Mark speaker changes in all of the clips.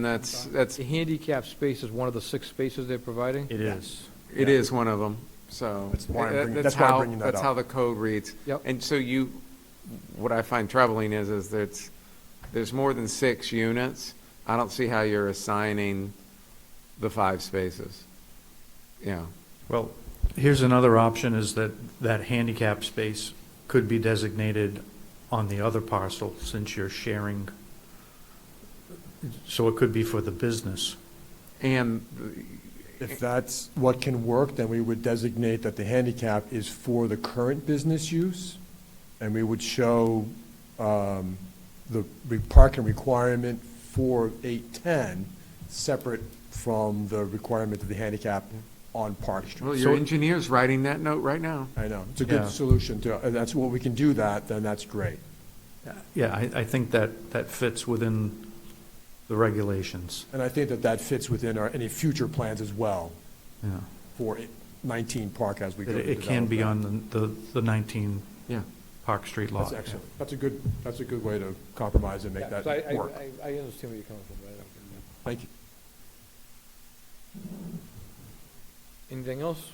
Speaker 1: And that's, that's,
Speaker 2: The handicap space is one of the six spaces they're providing?
Speaker 3: It is.
Speaker 1: it is one of them, so.
Speaker 4: That's why I'm
Speaker 1: that-
Speaker 4: bringing-
Speaker 1: that's
Speaker 4: that's why I'm
Speaker 1: how-
Speaker 4: bringing that
Speaker 1: That's
Speaker 4: up.
Speaker 1: how the code reads.
Speaker 2: Yep.
Speaker 1: And so you, what I find troubling is, is there's, there's more than six units. I don't see how you're assigning the five spaces. Yeah,
Speaker 3: Well, here's another option, is that that handicap space could be designated on the other parcel, since you're sharing. So it could be for the business.
Speaker 1: and,
Speaker 4: If that's what can work, then we would designate that the handicap is for the current business use, and we would show um, the re- parking requirement for 810 separate from the requirement of the handicap on Park
Speaker 1: well,
Speaker 4: Street.
Speaker 1: your
Speaker 3: So-
Speaker 1: engineer's writing that note right now.
Speaker 4: I know, it's a good
Speaker 3: Yeah.
Speaker 4: solution to, and that's, what we can do that, then that's great.
Speaker 3: Yeah, I, I think that, that fits within the regulations,
Speaker 4: And I think that that fits within our, any future plans as well
Speaker 3: yeah.
Speaker 4: for 19 Park as we go
Speaker 3: That
Speaker 4: to
Speaker 3: It it can
Speaker 4: develop
Speaker 3: be
Speaker 4: that.
Speaker 3: on the, the- the 19
Speaker 1: Yeah.
Speaker 3: Park Street lot.
Speaker 4: That's excellent. That's a good, that's a good way to compromise and make that
Speaker 2: So I- I-
Speaker 4: work.
Speaker 2: I I understand where you're coming from, right?
Speaker 4: Thank you.
Speaker 2: Anything else?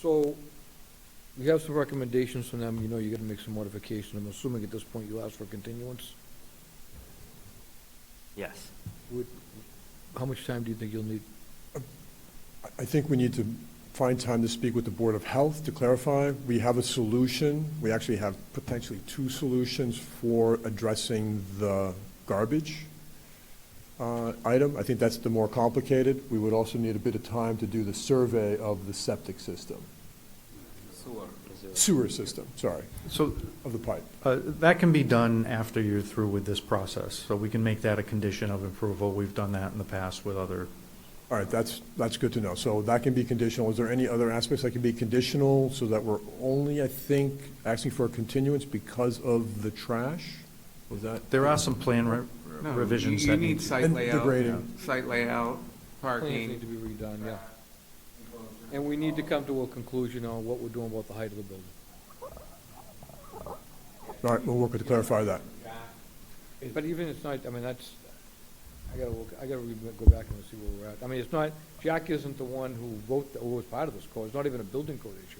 Speaker 2: So, we have some recommendations from them, you know, you gotta make some modification, I'm assuming at this point you asked for continuance?
Speaker 5: Yes.
Speaker 2: Would- How much time do you think you'll need?
Speaker 4: I- I think we need to find time to speak with the Board of Health to clarify. We have a solution. We actually have potentially two solutions for addressing the garbage uh, item. I think that's the more complicated. We would also need a bit of time to do the survey of the septic system, sewer system, sorry,
Speaker 3: So
Speaker 4: of the pipe.
Speaker 3: Uh, That can be done after you're through with this process, so we can make that a condition of approval. We've done that in the past with other,
Speaker 4: All right, that's, that's good to know. So that can be conditional. Is there any other aspects that can be conditional so that we're only, I think, asking for a continuance because of the trash? Was that?
Speaker 3: there are some plan re-
Speaker 1: No,
Speaker 3: revisions
Speaker 1: you-
Speaker 3: that
Speaker 1: You need
Speaker 3: need.
Speaker 1: site
Speaker 4: And the
Speaker 1: layout,
Speaker 4: grading.
Speaker 1: site layout,
Speaker 2: Plans need to
Speaker 1: parking.
Speaker 2: be redone, yeah. And we need to come to a conclusion on what we're doing about the height of the building.
Speaker 4: All right, we'll work with to clarify that.
Speaker 2: But even it's not, I mean, that's, I gotta, look- I gotta re- go back and see where we're at. I mean, it's not, Jack isn't the one who wrote, the- who was part of this code, it's not even a building code issue.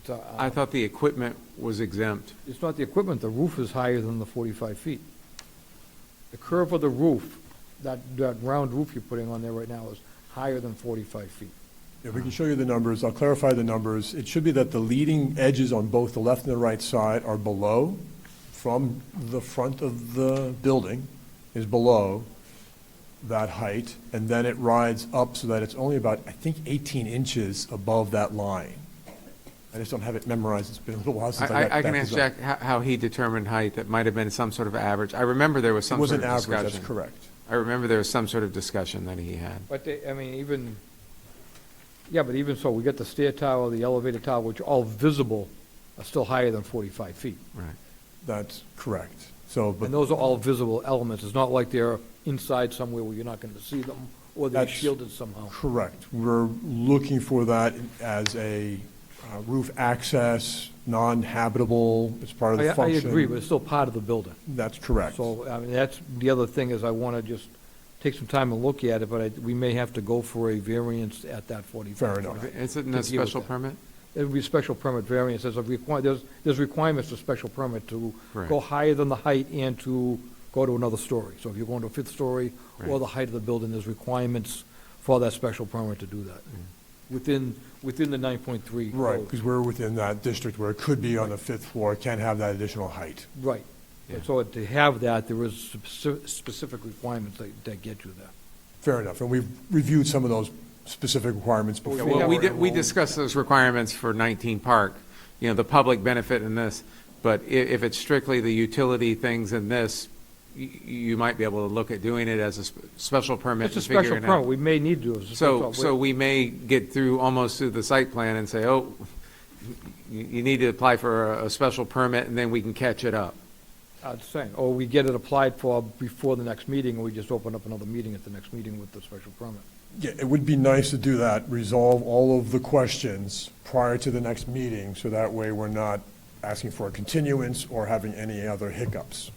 Speaker 2: It's, uh,
Speaker 1: I thought the equipment was exempt.
Speaker 2: It's not the equipment, the roof is higher than the forty-five feet. The curve of the roof, that, that round roof you're putting on there right now is higher than forty-five feet.
Speaker 4: Yeah, we can show you the numbers. I'll clarify the numbers. It should be that the leading edges on both the left and the right side are below, from the front of the building is below that height, and then it rides up so that it's only about, I think, 18 inches above that line. I just don't have it memorized. It's been a little while since I got
Speaker 1: I, I
Speaker 4: that
Speaker 1: can ask
Speaker 4: design.
Speaker 1: Jack how, how he determined height, that might have been some sort of average. I remember there was
Speaker 4: It
Speaker 1: some sort
Speaker 4: wasn't
Speaker 1: of
Speaker 4: average,
Speaker 1: discussion.
Speaker 4: that's correct.
Speaker 1: I remember there was some sort of discussion that he had.
Speaker 2: But they, I mean, even, yeah, but even so, we got the stair tower, the elevator tower, which are all visible, are still higher than forty-five feet.
Speaker 1: Right.
Speaker 4: That's correct. So, but
Speaker 2: And those are all visible elements, it's not like they're inside somewhere where you're not gonna see them, or they're
Speaker 4: That's-
Speaker 2: shielded somehow.
Speaker 4: Correct. We're looking for that as a uh, roof access, non-habitable, it's part of
Speaker 2: I,
Speaker 4: the
Speaker 2: I
Speaker 4: function.
Speaker 2: agree, but it's still part of the building.
Speaker 4: That's correct.
Speaker 2: So, I mean, that's, the other thing is I want to just take some time and look at it, but I, we may have to go for a variance at that 45.
Speaker 4: Fair enough.
Speaker 1: Isn't
Speaker 2: deal
Speaker 1: a
Speaker 2: with
Speaker 1: special
Speaker 2: that.
Speaker 1: permit?
Speaker 2: It would be special permit variance, there's a require, there's, there's requirements for special permit to go
Speaker 1: Correct.
Speaker 2: higher than the height and to go to another story. So if you're going to a fifth story or
Speaker 1: Right.
Speaker 2: the height of the building, there's requirements for that special permit to do that.
Speaker 1: Mm.
Speaker 2: Within, within the 9.3.
Speaker 4: Right,
Speaker 2: code.
Speaker 4: because we're within that district where it could be on the fifth floor, can't have that additional height.
Speaker 2: Right.
Speaker 1: Yeah.
Speaker 2: So to have that, there is speci- specific requirements that, that get you there.
Speaker 4: Fair enough. And we've reviewed some of those specific requirements
Speaker 2: we
Speaker 4: before.
Speaker 2: Oh, Yeah,
Speaker 1: Well, we,
Speaker 2: have-
Speaker 1: di- we discussed those requirements for 19 Park, you know, the public benefit in this, but i- if it's strictly the utility things in this, you, you might be able to look at doing it as a sp- special permit
Speaker 2: It's a
Speaker 1: and figuring out.
Speaker 2: special permit, we may need to. it's a
Speaker 1: So,
Speaker 2: special-
Speaker 1: so we may get through, almost through the site plan and say, oh, you, you need to apply for a, a special permit, and then we can catch it up.
Speaker 2: I'd say, or we get it applied for before the next meeting, and we just open up another meeting at the next meeting with the special permit.
Speaker 4: Yeah, it would be nice to do that, resolve all of the questions prior to the next meeting, so that way we're not asking for a continuance or having any other hiccups.